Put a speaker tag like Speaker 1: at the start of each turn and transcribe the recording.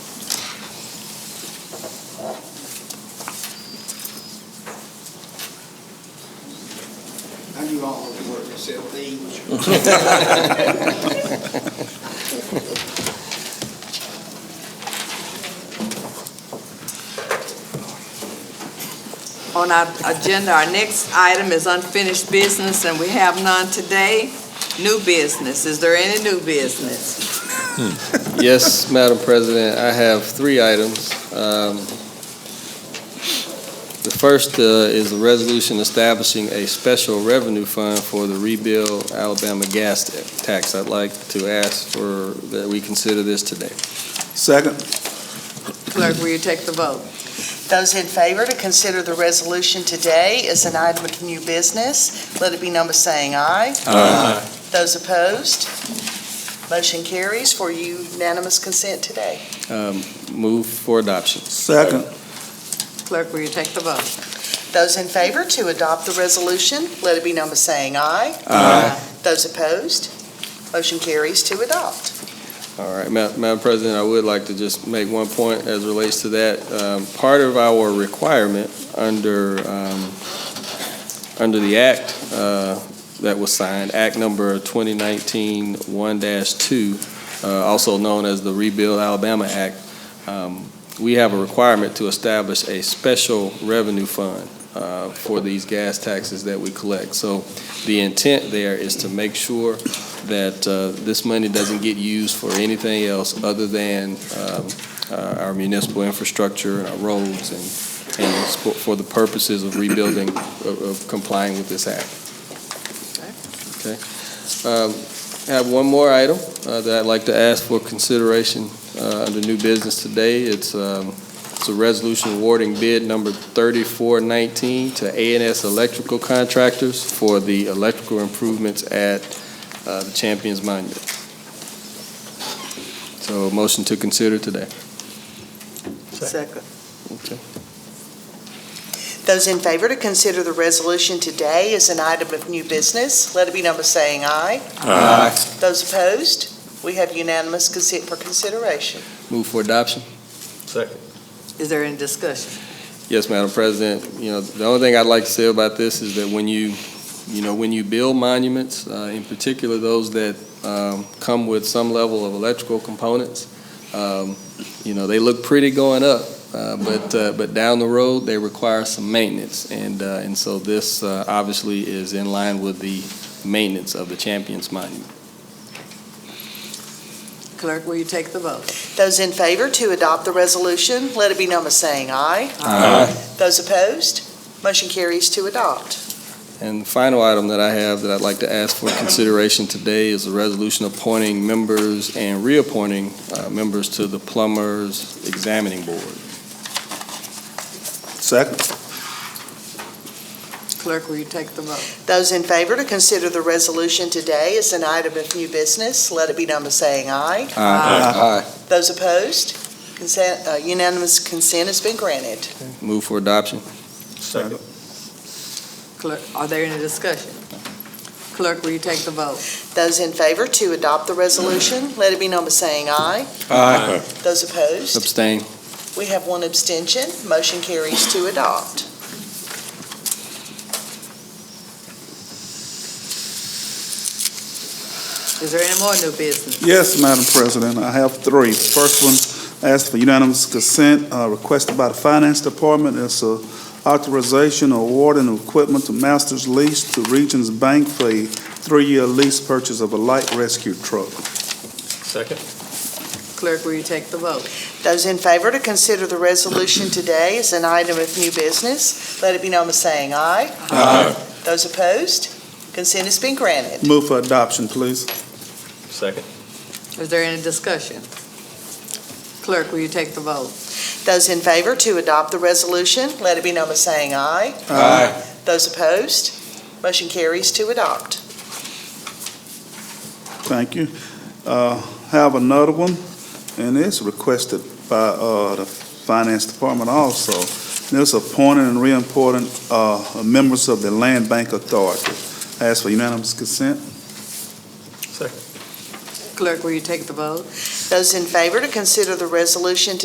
Speaker 1: work myself these.
Speaker 2: On our agenda, our next item is unfinished business, and we have none today. New business, is there any new business?
Speaker 3: Yes, Madam President, I have three items. Um, The first uh, is a resolution establishing a special revenue fund for the rebuild Alabama gas tax. I'd like to ask for, that we consider this today.
Speaker 4: Second.
Speaker 2: Clerk, will you take the vote?
Speaker 5: Those in favor to consider the resolution today as an item of new business, let it be number saying aye.
Speaker 4: Aye.
Speaker 5: Those opposed, motion carries for unanimous consent today.
Speaker 3: Um, Move for adoption.
Speaker 4: Second.
Speaker 2: Clerk, will you take the vote?
Speaker 5: Those in favor to adopt the resolution, let it be number saying aye.
Speaker 4: Aye.
Speaker 5: Those opposed, motion carries to adopt.
Speaker 3: All right, Ma- Madam President, I would like to just make one point as relates to that. Um, Part of our requirement under, um, under the act uh, that was signed, Act Number 2019-1-2, uh, also known as the Rebuild Alabama Act, um, we have a requirement to establish a special revenue fund uh, for these gas taxes that we collect. So the intent there is to make sure that uh, this money doesn't get used for anything else other than um, uh, our municipal infrastructure and our roads and, and spo- for the purposes of rebuilding, of of complying with this act. Okay. Um, I have one more item uh, that I'd like to ask for consideration uh, under new business today. It's, um, it's a resolution awarding bid number 3419 to a and S Electrical Contractors for the electrical improvements at uh, the Champions Monument. So motion to consider today.
Speaker 2: Second.
Speaker 5: Those in favor to consider the resolution today as an item of new business, let it be number saying aye. Those opposed, we have unanimous consent for consideration.
Speaker 3: Move for adoption.
Speaker 2: Is there any discussion?
Speaker 3: Yes, Madam President, you know, the only thing I'd like to say about this is that when you, you know, when you build monuments, uh, in particular those that um, come with some level of electrical components, um, you know, they look pretty going up, uh, but, uh, but down the road, they require some maintenance. And, uh, and so this uh, obviously is in line with the maintenance of the Champions Monument.
Speaker 2: Clerk, will you take the vote?
Speaker 5: Those in favor to adopt the resolution, let it be number saying aye. Those opposed, motion carries to adopt.
Speaker 3: And the final item that I have that I'd like to ask for consideration today is a resolution appointing members and reappointing uh, members to the Plumbers Examining Board.
Speaker 4: Second.
Speaker 2: Clerk, will you take the vote?
Speaker 5: Those in favor to consider the resolution today as an item of new business, let it be number saying aye. Those opposed, consent, uh, unanimous consent has been granted.
Speaker 3: Move for adoption.
Speaker 4: Second.
Speaker 2: Clerk, are there any discussion? Clerk, will you take the vote?
Speaker 5: Those in favor to adopt the resolution, let it be number saying aye.
Speaker 4: Aye.
Speaker 5: Those opposed,
Speaker 3: Abstain.
Speaker 5: we have one abstention, motion carries to adopt.
Speaker 2: Is there any more new business?
Speaker 4: Yes, Madam President, I have three. First one, ask for unanimous consent, uh, requested by the Finance Department. It's a authorization awarding of equipment to Masters Lease to Regions Bank for a three-year lease purchase of a light rescue truck.
Speaker 2: Clerk, will you take the vote?
Speaker 5: Those in favor to consider the resolution today as an item of new business, let it be known by saying aye. Aye. Those opposed, consent has been granted.
Speaker 4: Move for adoption, please.
Speaker 2: Is there any discussion? Clerk, will you take the vote?
Speaker 5: Those in favor to adopt the resolution, let it be known by saying aye.
Speaker 4: Aye.
Speaker 5: Those opposed, motion carries to adopt.
Speaker 4: Thank you. Uh, Have another one, and it's requested by uh, the Finance Department also. And it's appointing and reappointing uh, members of the Land Bank Authority. Ask for unanimous consent.
Speaker 2: Clerk, will you take the vote?
Speaker 5: Those in favor to consider the resolution